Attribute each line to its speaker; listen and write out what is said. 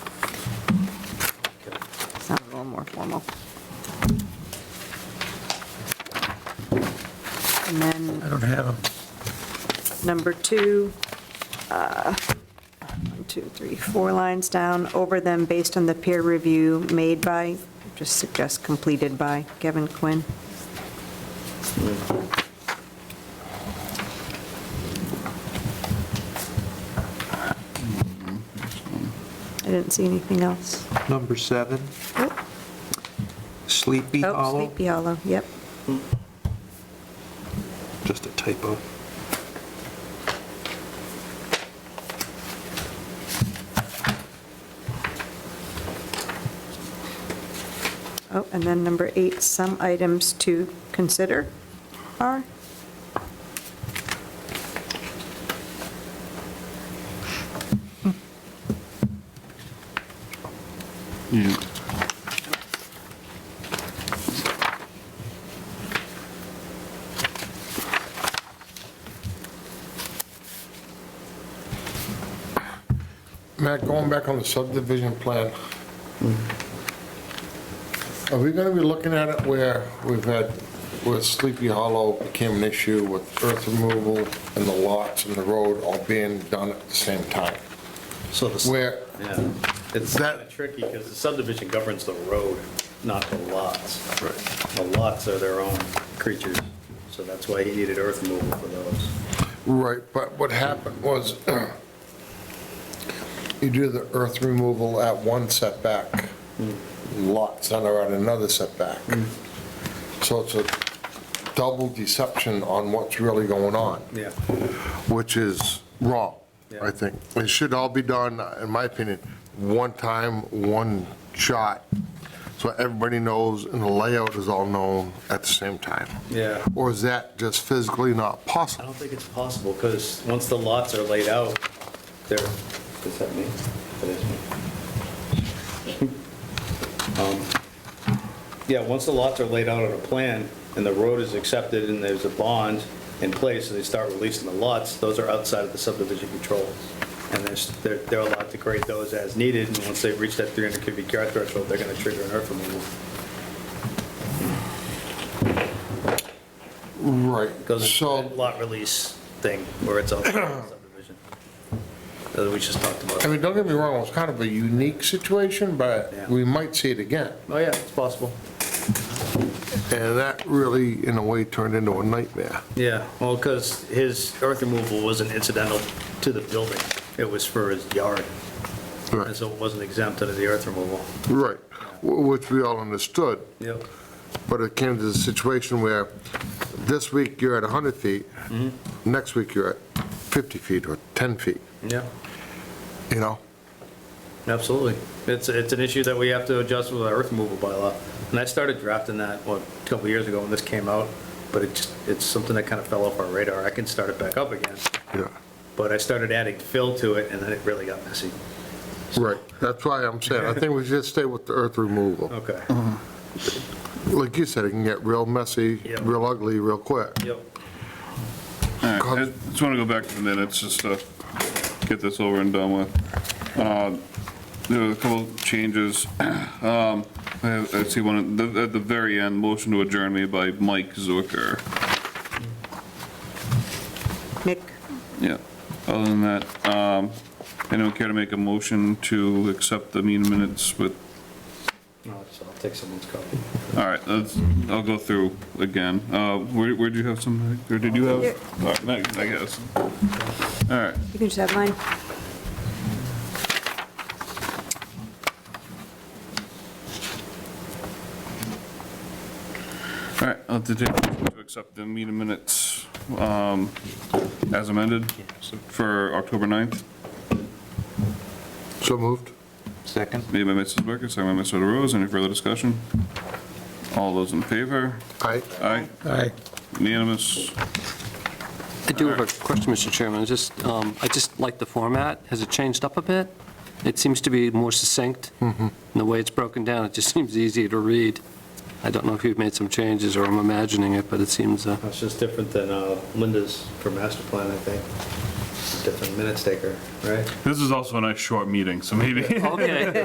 Speaker 1: little more formal. And then
Speaker 2: I don't have them.
Speaker 1: number two, uh, one, two, three, four lines down, over them based on the peer review made by, just suggest completed by Kevin Quinn. I didn't see anything else.
Speaker 2: Number seven,
Speaker 1: Nope.
Speaker 2: Sleepy
Speaker 1: Oh,
Speaker 2: Hollow,
Speaker 1: Sleepy Hollow, yep.
Speaker 2: just a typo.
Speaker 1: Oh, and then number eight, some items to consider are,
Speaker 3: Yeah.
Speaker 4: Matt, going back on the subdivision plan, are we gonna be looking at it where we've had, where Sleepy Hollow became an issue with earth removal and the lots and the road all being done at the same time?
Speaker 5: So the,
Speaker 4: Where,
Speaker 5: yeah, it's
Speaker 4: That-
Speaker 5: kind of tricky because the subdivision governs the road, not the lots. The lots are their own creatures, so that's why he needed earth removal for those.
Speaker 4: right, but what happened was you do the earth removal at one setback, lot center at another setback. So it's a double deception on what's really going on.
Speaker 5: Yeah.
Speaker 4: which is wrong,
Speaker 5: Yeah.
Speaker 4: I think. It should all be done, in my opinion, one time, one shot, so everybody knows and the layout is all known at the same time.
Speaker 5: Yeah.
Speaker 4: Or is that just physically not
Speaker 5: I
Speaker 4: possible?
Speaker 5: don't think it's possible because once the lots are laid out, they're, does that mean? That is me. Um, Yeah, once the lots are laid out on a plan and the road is accepted and there's a bond in place and they start releasing the lots, those are outside of the subdivision control. And there's- they're, they're allowed to create those as needed and once they've reached that 300 cubic yard threshold, they're going to trigger an earth removal.
Speaker 4: Right,
Speaker 5: goes into
Speaker 4: so,
Speaker 5: that lot release thing where it's all subdivision. That we just talked
Speaker 4: I
Speaker 5: about.
Speaker 4: mean, don't get me wrong, it's kind of a unique situation,
Speaker 5: Yeah.
Speaker 4: but we might see it again.
Speaker 5: Oh, yeah, it's possible.
Speaker 4: And that really, in a way, turned into a nightmare.
Speaker 5: Yeah, well, because his earth removal wasn't incidental to the building. It was for his yard, and
Speaker 4: Right,
Speaker 5: so it wasn't exempt under the earth removal.
Speaker 4: Right, wh- which we all understood.
Speaker 5: Yep.
Speaker 4: But it came to the situation where this week you're at 100 feet, next week you're at 50 feet or 10 feet,
Speaker 5: Yeah,
Speaker 4: you know?
Speaker 5: absolutely. It's, it's an issue that we have to adjust with our earth removal bylaw. And I started drafting that, what, a couple years ago when this came out, but it just, it's something that kind of fell off our radar. I can start it back up again,
Speaker 4: Yeah,
Speaker 5: but I started adding fill to it, and then it really got messy.
Speaker 4: right. That's why I'm saying, I think we should stay with the earth removal.
Speaker 5: Okay.
Speaker 4: Like you said, it can get real messy,
Speaker 5: Yeah.
Speaker 4: real ugly, real quick.
Speaker 5: Yep.
Speaker 3: All right,
Speaker 4: Cause-
Speaker 3: I just want to go back to the minutes, just to get this over and done with. Um, There were a couple changes. Um, I I see one, at the- at the very end, motion to adjourn made by Mike Zucker.
Speaker 1: Nick,
Speaker 3: Yeah, other than that, um, anyone care to make a motion to accept the meeting minutes with,
Speaker 5: No, so I'll take someone's copy.
Speaker 3: all right, let's, I'll go through again. Uh, Where, where do you have some, or did you
Speaker 1: Here.
Speaker 3: have? All right, next, I guess. All right,
Speaker 1: you can just have mine.
Speaker 3: all right, I'll have to take a motion to accept the meeting minutes um, as amended for October 9th,
Speaker 4: So moved?
Speaker 2: Second?
Speaker 3: made by Mrs. Becker, second by Mr. DeRose. Any further discussion? All those in favor?
Speaker 4: Aye.
Speaker 3: Aye,
Speaker 2: Aye.
Speaker 3: unanimous.
Speaker 6: I do have a question, Mr. Chairman. It's Just, um, I just like the format. Has it changed up a bit? It seems to be more succinct. And the way it's broken down, it just seems easier to read. I don't know if you've made some changes or I'm imagining it, but it seems, uh,
Speaker 5: That's just different than uh, Linda's for master plan, I think. Different minutes taker, right?
Speaker 3: This is also a nice short meeting, so maybe.
Speaker 6: okay.